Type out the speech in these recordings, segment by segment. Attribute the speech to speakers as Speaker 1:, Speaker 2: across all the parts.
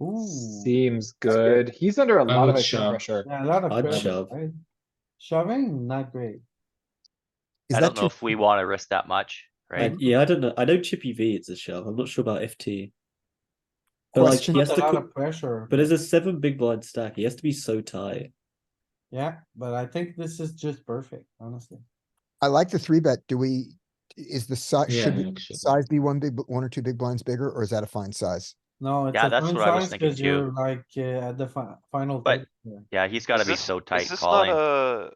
Speaker 1: Ooh,
Speaker 2: Seems
Speaker 1: good.
Speaker 2: good. He's under a lot of
Speaker 3: would
Speaker 2: extra
Speaker 3: shove.
Speaker 2: pressure.
Speaker 1: yeah, a lot of.
Speaker 4: Odd
Speaker 1: pressure,
Speaker 4: shove.
Speaker 1: right? Shoving, not great.
Speaker 5: I don't know if we want to risk that much,
Speaker 4: I-
Speaker 5: right?
Speaker 4: yeah, I don't know. I know Chippy V it's a shove. I'm not sure about FT. But like
Speaker 1: Question,
Speaker 4: he has
Speaker 1: a
Speaker 4: to
Speaker 1: lot
Speaker 4: co-
Speaker 1: of pressure,
Speaker 4: but there's a seven big blind stack. He has to be so tight.
Speaker 1: yeah, but I think this is just perfect, honestly.
Speaker 6: I like the three bet. Do we, is the size,
Speaker 3: Yeah,
Speaker 6: should
Speaker 3: I
Speaker 6: we-
Speaker 3: think so.
Speaker 6: size be one big, bl- one or two big blinds bigger, or is that a fine size?
Speaker 1: No, it's
Speaker 5: Yeah,
Speaker 1: a
Speaker 5: that's
Speaker 1: fine
Speaker 5: what I was
Speaker 1: size
Speaker 5: thinking
Speaker 1: 'cause
Speaker 5: too.
Speaker 1: you're like, uh, at the fi- final.
Speaker 5: But-
Speaker 1: table here.
Speaker 5: Yeah, he's gotta
Speaker 7: Is
Speaker 5: be
Speaker 7: this-
Speaker 5: so
Speaker 7: Is
Speaker 5: tight
Speaker 7: this not
Speaker 5: calling.
Speaker 7: a,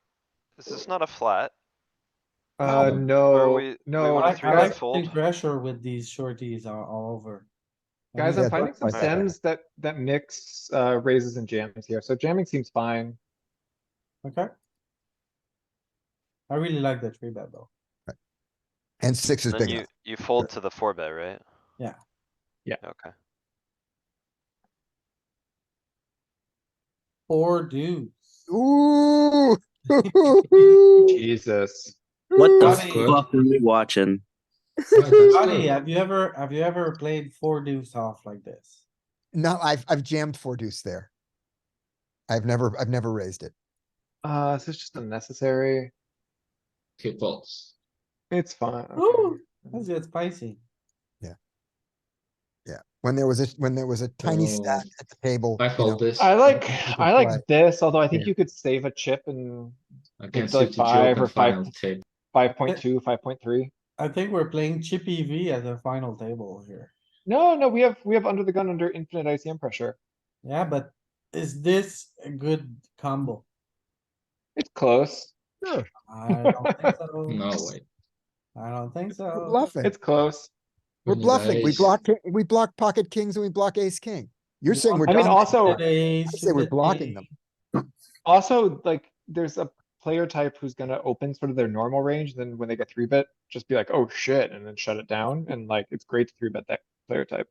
Speaker 7: is this not a flat?
Speaker 2: Uh, no,
Speaker 7: we- we
Speaker 2: no.
Speaker 7: wanna
Speaker 1: I,
Speaker 7: three
Speaker 1: I
Speaker 7: bet
Speaker 2: guys-
Speaker 1: like
Speaker 7: fold?
Speaker 1: the pressure with these shorties are all over. I
Speaker 2: Guys,
Speaker 1: mean,
Speaker 2: I'm
Speaker 6: Yeah,
Speaker 2: finding some
Speaker 6: that's fine.
Speaker 2: sims that, that mix, uh, raises and jams here, so jamming seems fine.
Speaker 1: Okay. I really like the three bet though.
Speaker 6: And six is
Speaker 7: Then
Speaker 6: big
Speaker 7: you,
Speaker 6: enough.
Speaker 7: you fold to the four bet, right?
Speaker 1: Yeah.
Speaker 2: Yeah.
Speaker 7: Okay.
Speaker 1: Four deuce.
Speaker 6: Ooh.
Speaker 2: Jesus.
Speaker 8: What the
Speaker 1: Johnny.
Speaker 8: fuck are we watching?
Speaker 3: Yeah, that's
Speaker 1: Johnny,
Speaker 3: good.
Speaker 1: have you ever, have you ever played four deuce off like this?
Speaker 6: No, I've, I've jammed four deuce there. I've never, I've never raised it.
Speaker 2: Uh, this is just unnecessary.
Speaker 3: Okay, folds.
Speaker 2: It's fine. okay.
Speaker 1: Ooh, Let's get spicy.
Speaker 6: When there was a, when there was a tiny stack
Speaker 3: Oh.
Speaker 6: at the table.
Speaker 3: I
Speaker 6: you know,
Speaker 3: fold this.
Speaker 2: I like,
Speaker 6: It's a
Speaker 2: I like
Speaker 6: flat.
Speaker 2: this, although I think
Speaker 6: Yeah.
Speaker 2: you could save a chip in it's
Speaker 3: Against
Speaker 2: like
Speaker 3: fifty two
Speaker 2: five or
Speaker 3: open
Speaker 2: five-
Speaker 3: final table.
Speaker 2: five point two, five point three.
Speaker 1: I think we're playing chippy V at the final table here.
Speaker 2: No, no, we have, we have under the gun under infinite ICM pressure.
Speaker 1: Yeah, but is this a good combo?
Speaker 2: It's close.
Speaker 1: I don't think so.
Speaker 3: No way.
Speaker 1: I don't think
Speaker 6: We're
Speaker 1: so.
Speaker 6: Bluffing.
Speaker 2: It's close.
Speaker 6: We're
Speaker 3: Nice.
Speaker 6: bluffing. We block, ki- we block pocket kings and we block ace king. You're saying we're.
Speaker 2: I mean,
Speaker 6: dominating.
Speaker 2: also-
Speaker 1: Today,
Speaker 6: I say we're
Speaker 1: should
Speaker 6: blocking
Speaker 1: be-
Speaker 6: them.
Speaker 2: Also, like, there's a player type who's gonna open sort of their normal range, then when they get three bet, just be like, oh shit, and then shut it down, and like, it's great to three bet that player type.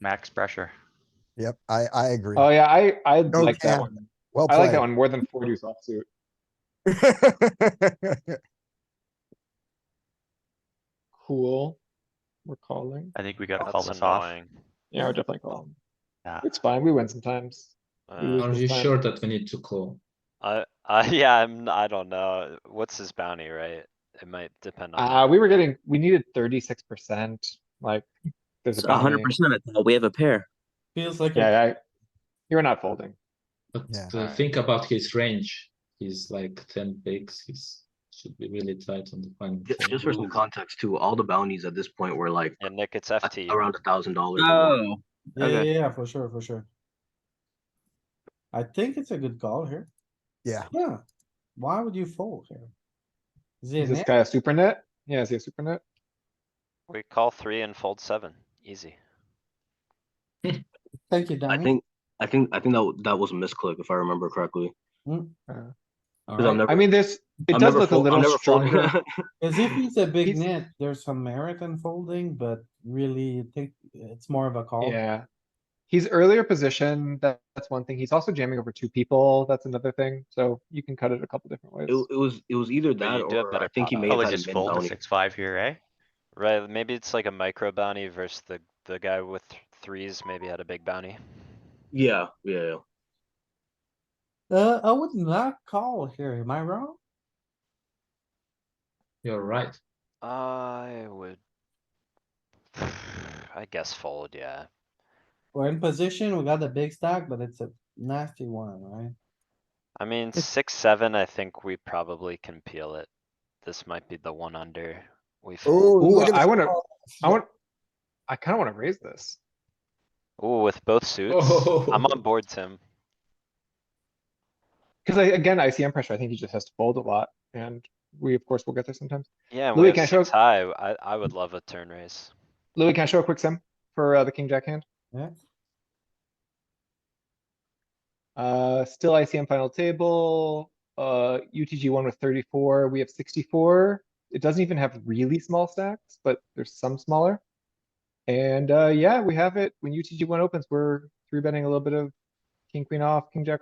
Speaker 5: Max pressure.
Speaker 6: Yep, I, I agree.
Speaker 2: Oh yeah, I, I like that
Speaker 6: cap.
Speaker 2: one.
Speaker 6: Well
Speaker 2: I like that
Speaker 6: played.
Speaker 2: one more than four deuce offsuit. Cool. We're calling.
Speaker 5: I think we gotta call
Speaker 7: That's
Speaker 5: this off.
Speaker 7: annoying.
Speaker 2: Yeah, we're definitely calling.
Speaker 5: Yeah.
Speaker 2: It's fine, we win sometimes.
Speaker 7: Uh,
Speaker 3: Are you sure that we need to call?
Speaker 7: I, I, yeah, I'm, I don't know. What's his bounty, right? It might depend
Speaker 2: Uh,
Speaker 7: on.
Speaker 2: we were getting, we needed thirty-six percent, like, there's
Speaker 8: It's
Speaker 2: a
Speaker 8: hundred
Speaker 2: bounty.
Speaker 8: percent. We have a pair.
Speaker 1: Feels like, a-
Speaker 2: Yeah, I, you're not folding.
Speaker 3: But
Speaker 6: Yeah.
Speaker 3: uh, think about his range. He's like ten bigs. He's should be really tight on the final.
Speaker 9: Ju-
Speaker 3: table.
Speaker 9: Just for some context too, all the bounties at this point were like
Speaker 7: And Nick, it's
Speaker 9: a-
Speaker 7: FT.
Speaker 9: around a thousand dollars.
Speaker 8: Oh,
Speaker 1: yeah, yeah,
Speaker 8: Okay.
Speaker 1: yeah, for sure, for sure. I think it's a good call here.
Speaker 6: Yeah,
Speaker 1: Yeah, why would you fold here? Is
Speaker 2: Is
Speaker 1: it
Speaker 2: this
Speaker 1: net?
Speaker 2: guy a super net? Yeah, is he a super net?
Speaker 7: We call three and fold seven. Easy.
Speaker 1: Thank you,
Speaker 9: I
Speaker 1: Danny.
Speaker 9: think, I think, I think that, w- that was a misclick if I remember correctly.
Speaker 3: Alright.
Speaker 9: Because I'm never-
Speaker 2: I mean, this, Mm. it
Speaker 9: I'm
Speaker 2: does
Speaker 9: never
Speaker 2: look a
Speaker 9: fol- I'm
Speaker 2: little
Speaker 9: never folding.
Speaker 2: stronger.
Speaker 1: As if it's a big
Speaker 2: He's-
Speaker 1: net, there's some merit in folding, but really I think it's more of a call.
Speaker 2: Yeah. He's earlier position, that, that's one thing. He's also jamming over two people, that's another thing, so you can cut it a couple different ways.
Speaker 9: It, it was, it was either that
Speaker 7: you do have
Speaker 9: or
Speaker 7: better
Speaker 9: I think he
Speaker 7: product.
Speaker 9: may have
Speaker 5: Probably
Speaker 9: had
Speaker 5: just
Speaker 9: a mid
Speaker 5: fold to
Speaker 9: bounty.
Speaker 5: six, five here, eh?
Speaker 7: Right, maybe it's like a micro bounty versus the, the guy with th- threes maybe had a big bounty.
Speaker 9: Yeah, yeah, yeah.
Speaker 1: Uh, I would not call here, am I wrong?
Speaker 3: You're right.
Speaker 7: I would. I guess fold, yeah.
Speaker 1: We're in position, we got a big stack, but it's a nasty one, right?
Speaker 7: I mean, six, seven, I think we probably can peel it. This might be the one under. We fold.
Speaker 6: Ooh,
Speaker 2: Ooh,
Speaker 6: look at
Speaker 2: I
Speaker 6: this
Speaker 2: wanna,
Speaker 6: call.
Speaker 2: I want, I kinda wanna raise this.
Speaker 7: Ooh, with both suits.
Speaker 3: Oh.
Speaker 7: I'm on board, Tim.
Speaker 2: Cause I, again, ICM pressure, I think he just has to fold a lot, and we, of course, will get there sometimes.
Speaker 7: Yeah, and
Speaker 2: Louis,
Speaker 7: we
Speaker 2: can I
Speaker 7: have
Speaker 2: show-
Speaker 7: six high. I, I would love a turn raise.
Speaker 2: Louis, can I show a quick sim for, uh, the king jack hand?
Speaker 1: Yeah.
Speaker 2: Uh, still ICM final table, uh, UTG one with thirty-four, we have sixty-four. It doesn't even have really small stacks, but there's some smaller. And, uh, yeah, we have it. When UTG one opens, we're three betting a little bit of king, queen off, king jack